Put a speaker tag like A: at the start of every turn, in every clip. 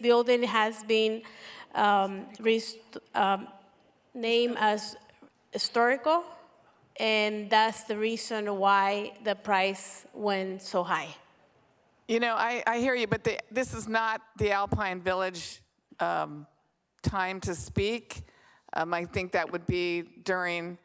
A: building has been um, rest- um, named as historical, and that's the reason why the price went so high.
B: You know, I, I hear you, but the, this is not the Alpine Village um, time to speak. Um, I think that would be during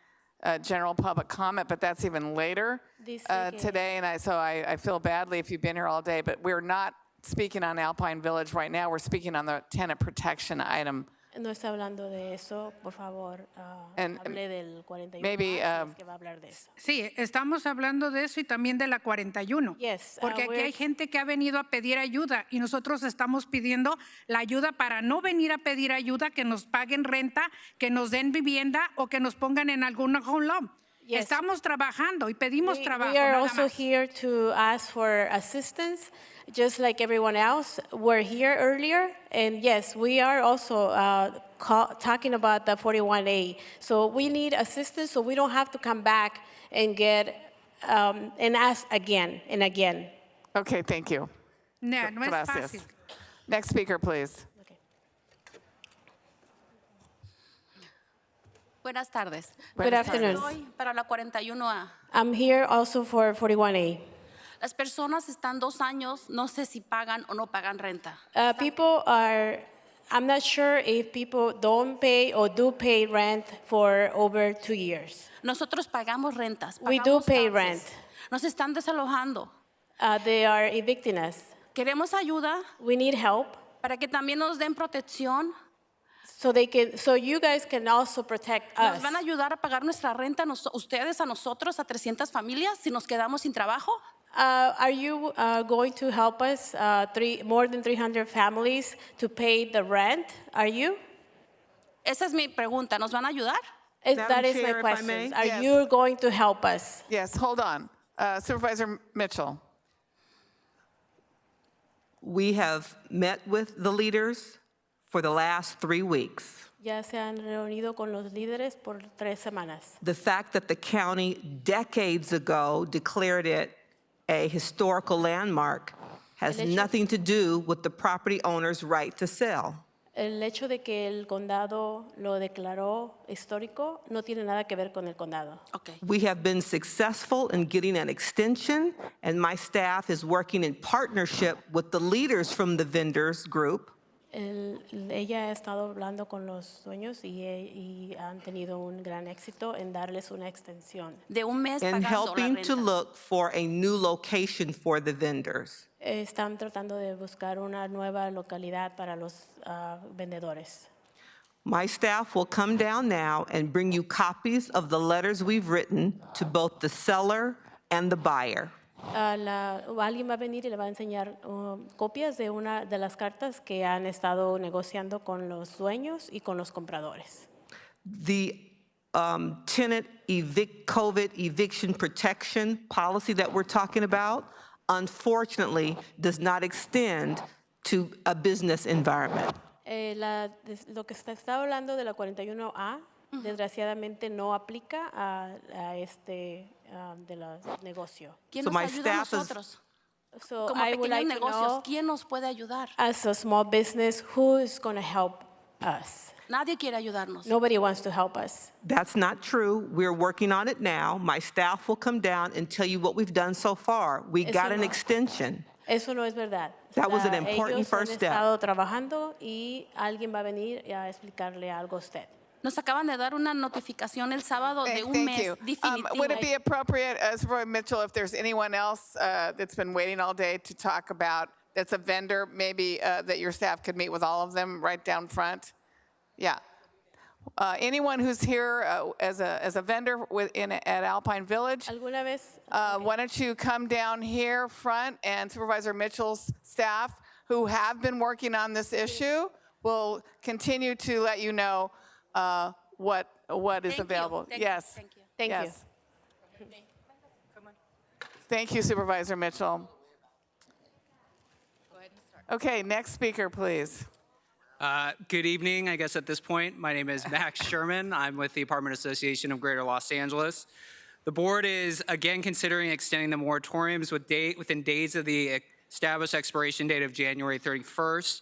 B: uh, general public comment, but that's even later
A: This
B: uh,
A: weekend.
B: today. And I, so I, I feel badly if you've been here all day, but we're not speaking on Alpine Village right now. We're speaking on the tenant protection item.
A: No está hablando de eso, por favor, ah,
B: And,
A: hable del 41.
B: maybe,
A: Ah,
B: um,
A: es que va a hablar de eso.
C: Sí, estamos hablando de eso y también de la 41.
A: Yes, uh,
C: porque aquí
A: we're-
C: hay gente que ha venido a pedir ayuda y nosotros estamos pidiendo la ayuda para no venir a pedir ayuda, que nos paguen renta, que nos den vivienda o que nos pongan en algún home loan.
A: Yes.
C: Estamos trabajando y pedimos
A: We-
C: trabajo.
A: We are
C: nada
A: also
C: más.
A: here to ask for assistance, just like everyone else. We're here earlier, and yes, we are also uh, ca- talking about the 41A. So we need assistance, so we don't have to come back and get, um, and ask again and again.
B: Okay, thank you.
C: No, no es
B: Gracias.
C: fácil.
B: Next speaker, please.
D: Buenas tardes.
A: Good afternoon.
D: Estoy para la 41A.
A: I'm here also for 41A.
D: Las personas están dos años, no sé si pagan o no pagan renta.
A: Uh, People are, I'm not sure if people don't pay or do pay rent for over two years.
D: Nosotros pagamos rentas.
A: We
D: pagamos
A: do pay
D: taxes.
A: rent.
D: Nos están desalojando.
A: Uh, They are evicting us.
D: Queremos ayuda
A: We need help.
D: para que también nos den protección.
A: So they can, so you guys can also protect
D: ¿Nos
A: us.
D: van a ayudar a pagar nuestra renta nos- ustedes a nosotros, a 300 familias, si nos quedamos sin trabajo?
A: Uh, are you uh, going to help us, uh, three, more than 300 families, to pay the rent? Are you?
D: Esa es mi pregunta. ¿Nos van a ayudar?
A: Is-
E: Madam
A: That is my
E: Chair, if I
A: question.
E: may?
A: Are
B: Yes.
A: you going to help us?
B: Yes, hold on. Uh, Supervisor Mitchell.
E: We have met with the leaders for the last three weeks.
A: Ya se han reunido con los líderes por tres semanas.
E: The fact that the county decades ago declared it a historical landmark has
A: Delicious.
E: nothing to do with the property owner's right to sell.
A: El hecho de que el condado lo declaró histórico no tiene nada que ver con el condado.
D: Ok.
E: We have been successful in getting an extension, and my staff is working in partnership with the leaders from the vendors group
A: El- ella ha estado hablando con los dueños y, he- y han tenido un gran éxito en darles una extensión.
D: De un mes
E: in
D: pagando
E: helping
D: la renta.
E: to look for a new location for the vendors.
A: Eh, Están tratando de buscar una nueva localidad para los ah, vendedores.
E: My staff will come down now and bring you copies of the letters we've written to both the seller and the buyer.
A: Ah, la- o alguien va a venir y le va a enseñar um, copias de una de las cartas que han estado negociando con los dueños y con los compradores.
E: The um, tenant evict, COVID eviction protection policy that we're talking about, unfortunately, does not extend to a business environment.
A: Eh, la- des- lo que está, está hablando de la 41A, desgraciadamente no aplica a, a este ah, de los negocio.
D: ¿Quién
E: So
D: nos
E: my
D: ayuda a
E: staff is-
D: nosotros?
A: So
D: Como
A: I would
D: pequeños
A: like to
D: negocios,
A: know,
D: ¿quién nos puede ayudar?
A: as a small business, who is going to help us?
D: Nadie quiere ayudarnos.
A: Nobody wants to help us.
E: That's not true. We're working on it now. My staff will come down and tell you what we've done so far. We got an
A: no.
E: extension.
A: Eso no es verdad.
E: That was an
A: La-
E: important
A: ellos
E: first
A: han
E: step.
A: estado trabajando y alguien va a venir a explicarle algo a usted.
D: Nos acaban de dar una notificación el sábado
B: Hey,
D: de un
B: thank
D: mes
B: you. Um,
D: definitivo.
B: would it be appropriate, uh, Supervisor Mitchell, if there's anyone else uh, that's been waiting all day to talk about, that's a vendor, maybe uh, that your staff could meet with all of them right down front? Yeah. Uh, anyone who's here uh, as, a, as a vendor within, at Alpine Village,
A: ¿Alguna vez
B: uh, why don't you come down here front and Supervisor Mitchell's staff, who have been working on this issue, will continue to let you know uh, what, what is
D: Thank you,
B: available.
D: thank you,
B: Yes.
D: thank you.
A: Thank you.
B: Yes. Thank you Supervisor Mitchell. Okay, next speaker, please.
F: Uh, Good evening, I guess at this point. My name is Max Sherman. I'm with the Apartment Association of Greater Los Angeles. The board is again considering extending the e-, moratoriums with date, within days of the established expiration date of January 31st